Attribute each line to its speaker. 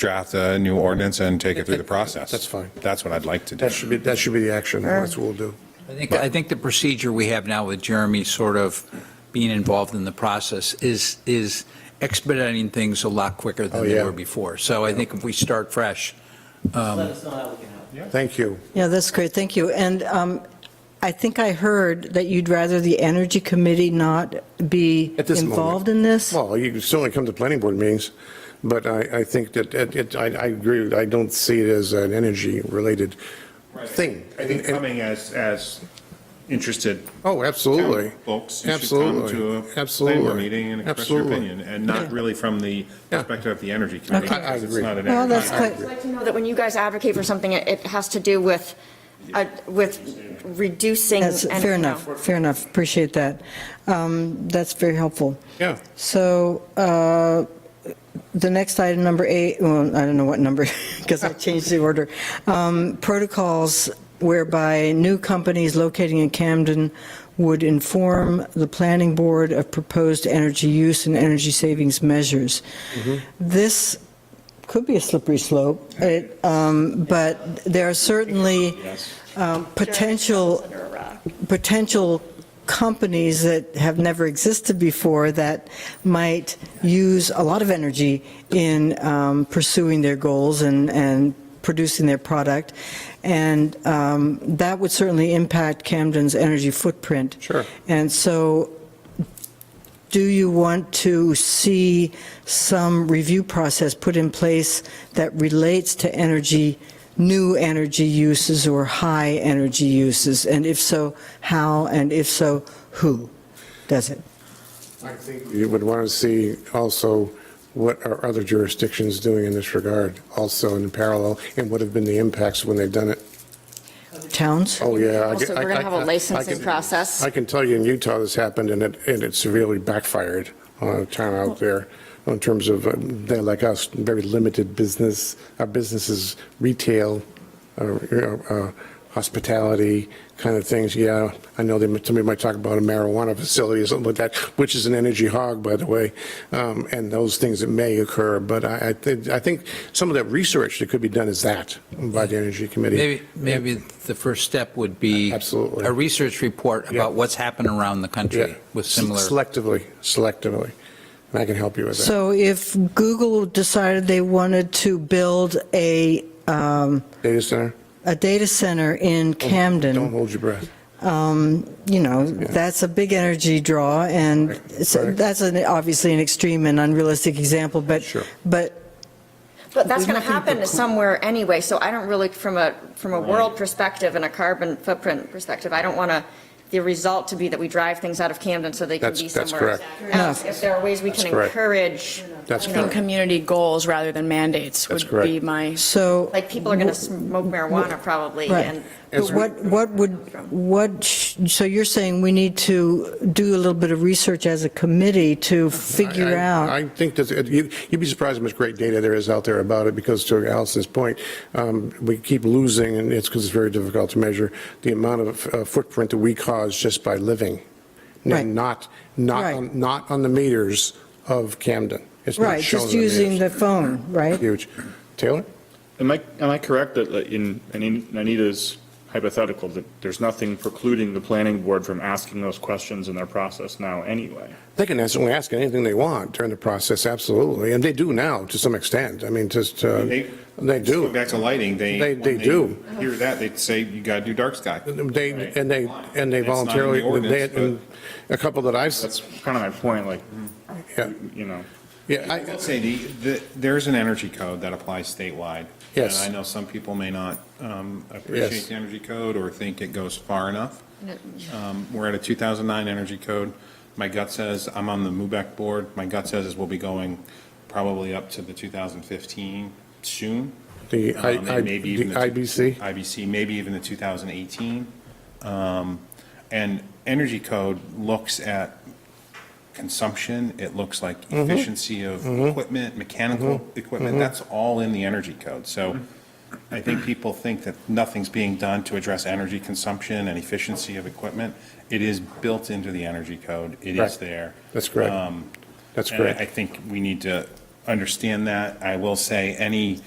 Speaker 1: draft a new ordinance and take it through the process.
Speaker 2: That's fine.
Speaker 1: That's what I'd like to do.
Speaker 2: That should be, that should be the action, that's what we'll do.
Speaker 3: I think, I think the procedure we have now with Jeremy sort of being involved in the process is, is expediting things a lot quicker
Speaker 2: Oh,
Speaker 3: than they
Speaker 2: yeah.
Speaker 3: were before. So I think if we start fresh,
Speaker 4: Let us know how we can help.
Speaker 2: Thank you.
Speaker 5: Yeah, that's great, thank you. And um, I think I heard that you'd rather the Energy Committee not be
Speaker 2: At this moment.
Speaker 5: involved in this?
Speaker 2: Well, you can still only come to planning board meetings, but I, I think that, it, it- I, I agree, I don't see it as an energy-related thing.
Speaker 1: I think
Speaker 2: And- and-
Speaker 1: coming as, as interested
Speaker 2: Oh, absolutely.
Speaker 1: town folks, you should come
Speaker 2: Absolutely.
Speaker 1: to a planning
Speaker 2: Absolutely.
Speaker 1: board meeting and express your
Speaker 2: Absolutely.
Speaker 1: opinion, and not really from the perspective of the energy committee.
Speaker 2: Okay. I- I
Speaker 1: because it's
Speaker 2: agree.
Speaker 1: not an
Speaker 5: Well,
Speaker 1: energy
Speaker 5: that's
Speaker 1: committee.
Speaker 5: quite,
Speaker 6: I'd like to know that when you guys advocate for something, it it has to do with, uh, with reducing.
Speaker 5: that's,
Speaker 6: and,
Speaker 5: fair
Speaker 6: you know,
Speaker 5: enough, fair enough, appreciate that. Um, That's very helpful.
Speaker 2: Yeah.
Speaker 5: So uh, the next item, number eight, well, I don't know what number, because I changed the order. Um, Protocols whereby new companies locating in Camden would inform the planning board of proposed energy use and energy savings measures. This could be a slippery slope, it, um, but there are certainly um, potential
Speaker 6: Under a rock.
Speaker 5: potential companies that have never existed before that might use a lot of energy in um, pursuing their goals and, and producing their product. And um, that would certainly impact Camden's energy footprint.
Speaker 2: Sure.
Speaker 5: And so do you want to see some review process put in place that relates to energy, new energy uses or high energy uses? And if so, how? And if so, who does it?
Speaker 2: I think You would want to see also what are other jurisdictions doing in this regard, also in parallel, and what have been the impacts when they've done it.
Speaker 5: Towns?
Speaker 2: Oh, yeah. I
Speaker 6: Also,
Speaker 2: can-
Speaker 6: we're going
Speaker 2: I-
Speaker 6: to have
Speaker 2: I- I
Speaker 6: a licensing
Speaker 2: can-
Speaker 6: process.
Speaker 2: I can tell you in Utah, this happened, and it, and it severely backfired on a town out there in terms of, um, they're like us, very limited business, our businesses, retail, uh, uh, hospitality kind of things. Yeah, I know they, somebody might talk about a marijuana facility or something like that, which is an energy hog, by the way, um, and those things that may occur. But I, I think, I think some of that research that could be done is that by the Energy Committee.
Speaker 3: maybe, maybe the first step would be.
Speaker 2: Absolutely.
Speaker 3: A research report
Speaker 2: Yeah.
Speaker 3: about what's happened around the country
Speaker 2: Yeah.
Speaker 3: with similar.
Speaker 2: Selectively, selectively. And I can help you with that.
Speaker 5: So if Google decided they wanted to build a, um,
Speaker 2: Data center,
Speaker 5: a data center in Camden.
Speaker 2: don't hold your breath.
Speaker 5: you know, that's a big energy draw, and
Speaker 2: Right,
Speaker 5: so
Speaker 2: right.
Speaker 5: that's an, obviously an extreme and unrealistic example, but,
Speaker 2: Sure.
Speaker 5: but
Speaker 6: But that's
Speaker 5: We're
Speaker 6: going to
Speaker 5: looking for
Speaker 6: happen somewhere anyway, so I don't really, from a, from a world perspective and a carbon footprint perspective, I don't want to, the result to be that we drive things out of Camden so they can
Speaker 2: That's-
Speaker 6: be
Speaker 2: that's
Speaker 6: somewhere
Speaker 2: correct.
Speaker 6: else. If there are ways we can
Speaker 2: That's correct.
Speaker 6: encourage,
Speaker 2: That's
Speaker 6: you
Speaker 7: I
Speaker 6: know,
Speaker 7: think
Speaker 2: correct.
Speaker 7: community goals rather than mandates
Speaker 2: That's
Speaker 7: would be
Speaker 2: correct.
Speaker 7: my,
Speaker 5: so.
Speaker 6: like, people are going to smoke marijuana probably,
Speaker 5: Right.
Speaker 6: and
Speaker 5: But what, what would, what, sh- so you're saying we need to do a little bit of research as a committee to figure
Speaker 2: I- I-
Speaker 5: out?
Speaker 2: I think that, it- you- you'd be surprised how much great data there is out there about it, because to Allison's point, um, we keep losing, and it's because it's very difficult to measure, the amount of uh, footprint that we cause just by living.
Speaker 5: Right.
Speaker 2: And not, not,
Speaker 5: Right.
Speaker 2: on- not on the meters of Camden. It's not
Speaker 5: Right,
Speaker 2: shown
Speaker 5: just
Speaker 2: in the
Speaker 5: using the
Speaker 2: meters.
Speaker 5: phone, right?
Speaker 2: Huge. Taylor?
Speaker 8: Am I, am I correct that like, in in Anita's hypothetical, that there's nothing precluding the planning board from asking those questions in their process now anyway?
Speaker 2: They can ask, only ask anything they want during the process, absolutely, and they do now to some extent. I mean, just, uh, they
Speaker 1: Going
Speaker 2: do.
Speaker 1: Back to lighting, they.
Speaker 2: They-
Speaker 1: when
Speaker 2: they do.
Speaker 1: Hear that, they'd say, you gotta do dark sky.
Speaker 2: They, and they, and they
Speaker 1: It's not in the
Speaker 2: voluntarily, they,
Speaker 1: ordinance,
Speaker 2: and a couple that I've,
Speaker 8: That's kind of my point, like,
Speaker 2: yeah,
Speaker 8: you know.
Speaker 2: yeah,
Speaker 1: I
Speaker 2: I,
Speaker 1: will say, the, the, there's an energy code that applies statewide.
Speaker 2: Yes.
Speaker 1: And I know some people may not um, appreciate
Speaker 2: Yes.
Speaker 1: the energy code or think it goes far enough. Um, We're at a 2009 energy code. My gut says, I'm on the MUBEC board, my gut says is we'll be going probably up to the 2015 soon.
Speaker 2: the
Speaker 1: Um, and
Speaker 2: I- I-
Speaker 1: maybe
Speaker 2: the
Speaker 1: even the two-
Speaker 2: IBC,
Speaker 1: IBC, maybe even the 2018. Um, And energy code looks at consumption, it looks like
Speaker 2: Mm-hmm.
Speaker 1: efficiency of equipment, mechanical equipment, that's all in the energy code. So I think people think that nothing's being done to address energy consumption and efficiency of equipment. It is built into the energy code, it is
Speaker 2: Correct.
Speaker 1: there.
Speaker 2: That's correct.
Speaker 1: Um,
Speaker 2: that's
Speaker 1: and I- I
Speaker 2: correct.
Speaker 1: think we need to understand that. I will say, any